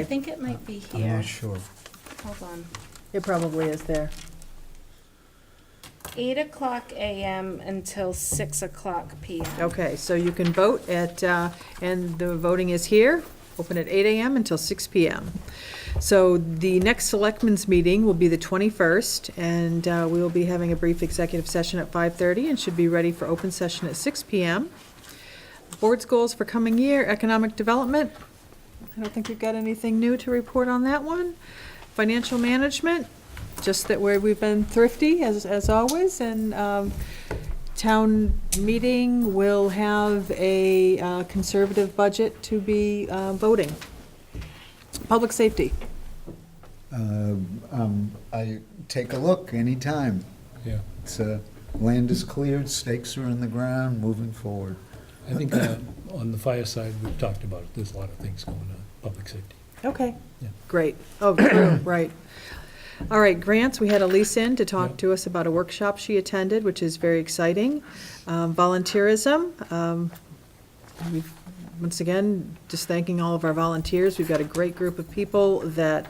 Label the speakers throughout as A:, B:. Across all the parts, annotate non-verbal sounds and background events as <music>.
A: I think it might be
B: I'm
A: here.
B: not sure.
A: Hold on.
C: It probably is there.
A: Eight o'clock AM until six o'clock PM.
C: Okay, so you can vote at, uh, and the voting is here, open at 8 AM until 6 PM. So the next Selectmen's meeting will be the 21st, and uh, we will be having a brief executive session at 5:30 and should be ready for open session at 6 PM. Board's goals for coming year, economic development. I don't think we've got anything new to report on that one. Financial management, just that where we've been thrifty, as, as always, and um, town meeting will have a uh, conservative budget to be uh, voting. Public safety,
B: Um, um, I, take a look anytime.
D: Yeah,
B: It's, uh, land is cleared, stakes are in the ground, moving forward.
D: I think uh, on the fire side, we've talked about it, there's a lot of things going on, public safety.
C: okay,
D: Yeah.
C: great, oh, <coughs> true, right. All right, grants, we had Elise in to talk to us about a workshop she attended, which is very exciting. Um, Volunteerism, um, we've- once again, just thanking all of our volunteers, we've got a great group of people that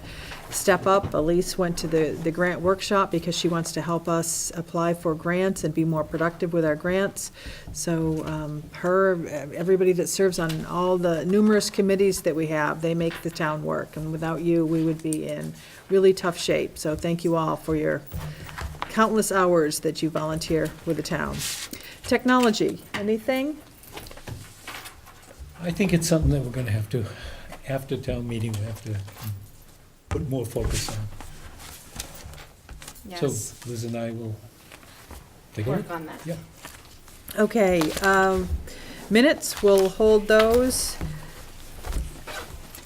C: step up. Elise went to the, the grant workshop because she wants to help us apply for grants and be more productive with our grants. So um, her, everybody that serves on all the numerous committees that we have, they make the town work. And without you, we would be in really tough shape. So thank you all for your countless hours that you volunteer with the town. Technology, anything?
D: I think it's something that we're gonna have to, after town meeting, we have to put more focus on. So
A: Yes,
D: Liz and I will take a look.
A: work on that.
D: Yeah.
C: Okay, um, minutes, we'll hold those.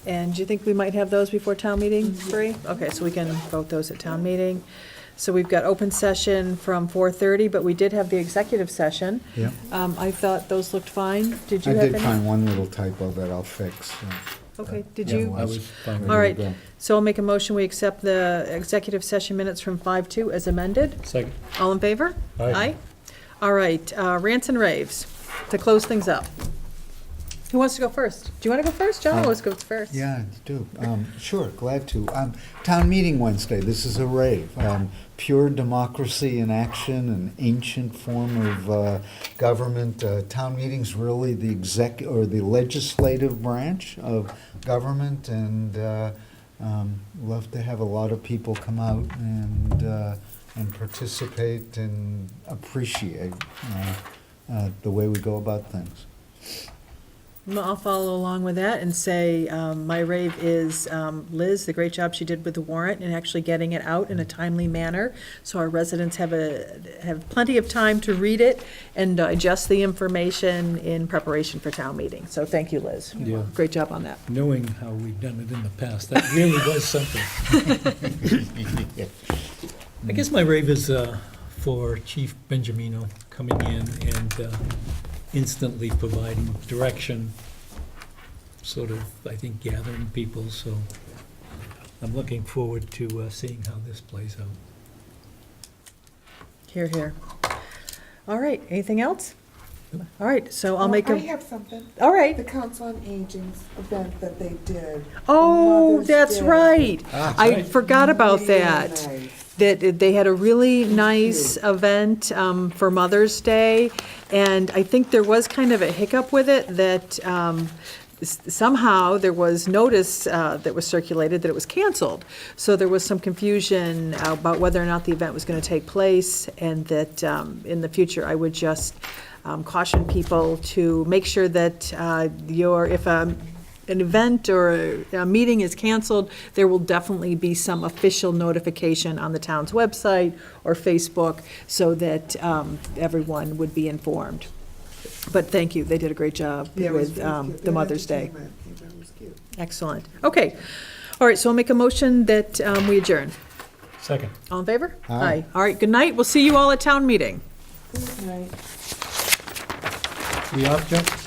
C: And do you think we might have those before town meeting, Bree? Okay, so we can vote those at town meeting. So we've got open session from four-thirty, but we did have the executive session.
B: Yeah.
C: Um, I thought those looked fine. Did
B: I
C: you have any?
B: did find one little typo that I'll fix. so
C: Okay, did
B: Yeah,
C: you?
B: one.
D: I was fine with
B: there you
C: All right.
B: go.
C: So I'll make a motion, we accept the executive session minutes from five-two as amended.
D: it. Second,
C: All in favor?
D: Aye.
C: All right, uh, rants and raves, to close things up. Who wants to go first? Do you want to go first? John
B: Um,
C: always goes first.
B: Yeah, I do. Um, Sure, glad to. Um, Town meeting Wednesday, this is a rave. Um, Pure democracy in action, an ancient form of uh, government. Uh, Town meeting's really the exec, or the legislative branch of government, and uh, um, love to have a lot of people come out and, uh, and participate and appreciate uh, uh, the way we go about things.
C: Well, Mm, I'll follow along with that and say, um, my rave is um, Liz, the great job she did with the warrant and actually getting it out in a timely manner. So our residents have a, have plenty of time to read it and digest the information in preparation for town meeting. So thank you, Liz.
D: Yeah.
C: Great job on that.
D: knowing how we've done it in the past, that really was something. I guess my rave is uh, for Chief Benjamino coming in and uh, instantly providing direction, sort of, I think, gathering people, so I'm looking forward to uh, seeing how this plays out.
C: Here, here. All right, anything else? All right, so I'll make
E: Well,
C: a,
E: Oh, I have something.
C: all
E: The
C: right.
E: Council on Aging's event that they did.
C: Oh,
E: Mother's
C: that's
E: Day.
C: right. I
D: right.
C: forgot about
E: Really
C: that.
E: nice.
C: That they had a really nice event um, for Mother's Day, and I think there was kind of a hiccup with it, that um, s- somehow there was notice uh, that was circulated that it was canceled. So there was some confusion about whether or not the event was going to take place, and that um, in the future, I would just um, caution people to make sure that uh, your, if a an event or a a meeting is canceled, there will definitely be some official notification on the town's website or Facebook so that um, everyone would be informed. But thank you, they did a great job
E: Yeah, it was
C: with
E: really
C: um,
E: cute.
C: the
E: Their
C: Mother's Day.
E: entertainment event was cute.
C: Excellent. Okay. All right, so I'll make a motion that um, we adjourn.
D: Second.
C: All in favor?
B: Aye.
C: All right, good night. We'll see you all at town meeting.
E: Good night.
D: We off, Jeff?